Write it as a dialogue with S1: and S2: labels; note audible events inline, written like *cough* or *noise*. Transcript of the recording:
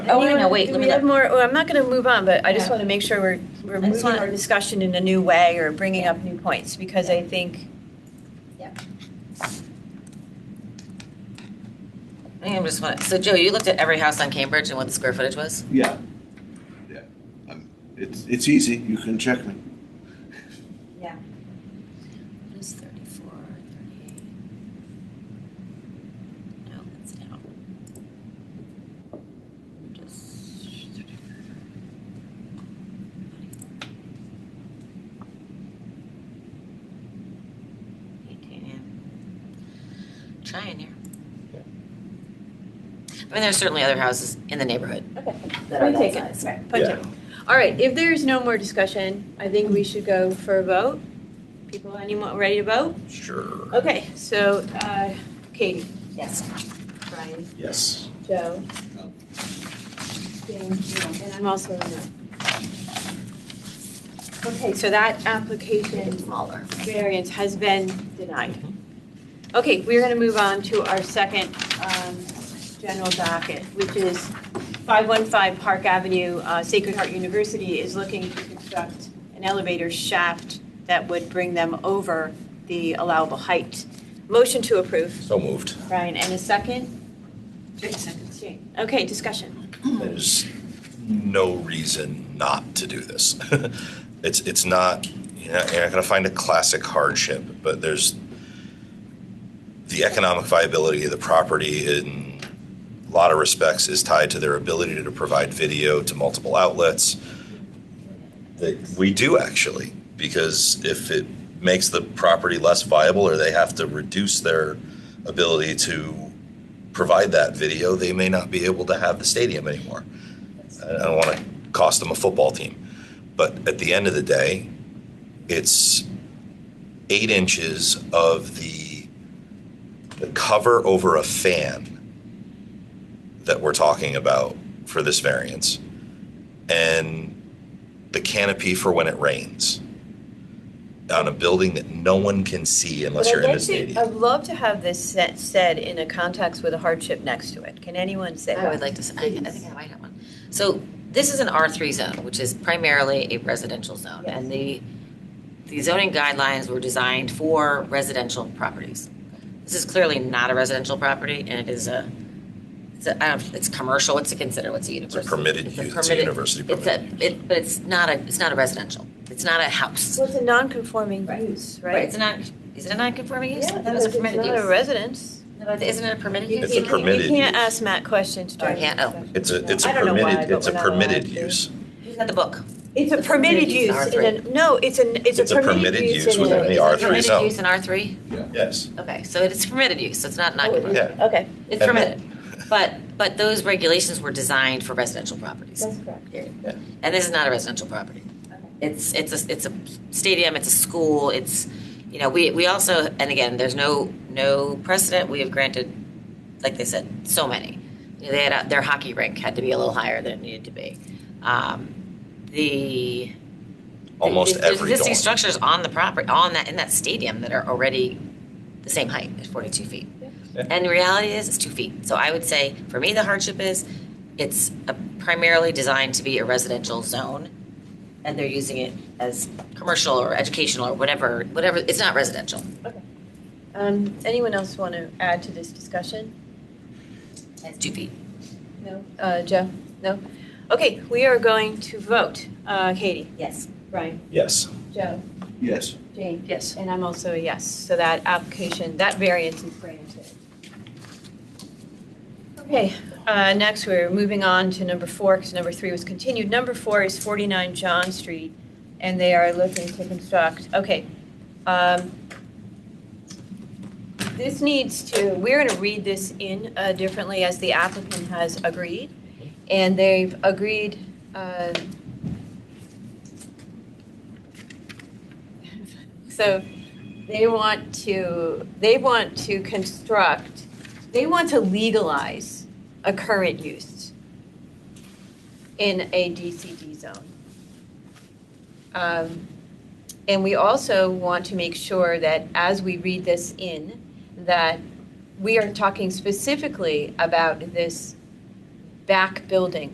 S1: Oh, wait, no, wait,
S2: Do
S1: let
S2: we
S1: me
S2: have
S1: look.
S2: more, well, I'm not going to move on, but I just
S1: Yeah.
S2: want to make sure we're, we're
S1: I just
S2: moving
S1: want-
S2: our discussion in a new way or bringing up new points, because I think,
S3: I think I'm just want, so Joe, you looked at every house on Cambridge and what the square footage was?
S4: Yeah. Yeah. Um, It's, it's easy. You can check me.
S3: It was thirty-four, thirty-eight. No, that's down. Just. Eighteen, yeah. Trying here. I mean, there's certainly other houses in the neighborhood.
S2: are that size. punch it. All right, if there's no more discussion, I think we should go for a vote. People, anyone ready to vote?
S5: Sure.
S2: Okay, so, uh, Katie,
S3: Yes.
S2: Brian,
S5: Yes.
S2: Joe.
S4: No.
S2: James, no, And I'm also a no. Okay, so that application
S3: Smaller.
S2: variance has been denied. Okay, we're going to move on to our second um, general docket, which is 515 Park Avenue. Uh, Sacred Heart University is looking to construct an elevator shaft that would bring them over the allowable height. Motion to approve,
S5: So moved.
S2: Brian, and a second? Jane. Okay, discussion.
S5: There's no reason not to do this. *laughs* it's it's not you're not, you're not going to find a classic hardship, but there's the economic viability of the property in a lot of respects is tied to their ability to provide video to multiple outlets. That we do actually, because if it makes the property less viable or they have to reduce their ability to provide that video, they may not be able to have the stadium anymore. I I don't want to cost them a football team. But at the end of the day, it's eight inches of the, the cover over a fan that we're talking about for this variance and the canopy for when it rains on a building that no one can see unless
S2: But I'd
S5: you're in
S2: like
S5: the
S2: to-
S5: stadium.
S2: I'd love to have this set- said in a context with a hardship next to it. Can anyone say
S3: I
S2: that?
S3: would like to, s- I, I think I might have one. So this is an R three zone, which is primarily a residential zone, and the, the zoning guidelines were designed for residential properties. This is clearly not a residential property, and it is a, it's a, I don't, it's commercial, what's it considered, what's a
S5: It's a
S3: university?
S5: permitted use, it's a
S3: permitted-
S5: university
S3: It's
S5: permitted
S3: a,
S5: use.
S3: it, but it's not a, it's not a residential, it's not a house.
S2: Well, it's a non-conforming use, right?
S3: It's not, is it a non-conforming use?
S2: Yeah,
S3: I thought it was a
S2: because it's
S3: permitted
S2: not a
S3: use.
S2: residence.
S3: No, but Isn't it a permitted use?
S5: It's a
S2: You- you-
S5: permitted
S2: You can't
S5: use.
S2: ask Matt questions
S3: Oh, I
S2: during.
S3: can't? Oh.
S5: It's a, it's
S2: I
S5: a
S2: don't know why,
S5: permitted,
S2: but
S5: it's a
S2: we're not allowed
S5: permitted
S2: to.
S5: use.
S3: Who's got the book?
S2: It's a permitted use in a, no, it's an, it's a permitted use in
S5: within
S2: a.
S5: the R three
S3: Permitted
S5: zone.
S3: use in R three?
S5: Yes.
S3: Okay, so it's permitted use, so it's not not,
S5: is. Yeah.
S2: Okay,
S3: it's
S5: And-
S3: permitted. But, but those regulations were designed for residential properties.
S2: that's correct.
S3: And this is not a residential property. It's, it's a, it's a stadium, it's a school, it's, you know, we, we also, and again, there's no, no precedent, we have granted, like they said, so many. You know, They had, a- their hockey rink had to be a little higher than it needed to be. Um, The.
S5: Almost
S3: there's- there's
S5: every
S3: Existing
S5: dorm.
S3: structures on the property, on that, in that stadium that are already the same height at forty-two feet.
S5: Yeah.
S3: And the reality is, it's two feet. So I would say, for me, the hardship is, it's a- primarily designed to be a residential zone, and they're using it as commercial or educational or whatever, whatever, it's not residential.
S2: Um, anyone else want to add to this discussion?
S3: It's two feet.
S2: No. Uh, Joe? No? Okay, we are going to vote. Uh, Katie?
S3: Yes.
S2: Brian?
S5: Yes.
S2: Joe?
S4: Yes.
S2: Jane? Yes. And I'm also a yes, so that application, that variance is granted. Okay, uh, next, we're moving on to number four, because number three was continued. Number four is 49 John Street, and they are looking to construct, okay. um, This needs to, we're going to read this in uh, differently, as the applicant has agreed, and they've agreed, uh, so they want to, they want to construct, they want to legalize a current use in a DCD zone. Um, And we also want to make sure that as we read this in, that we are talking specifically about this back building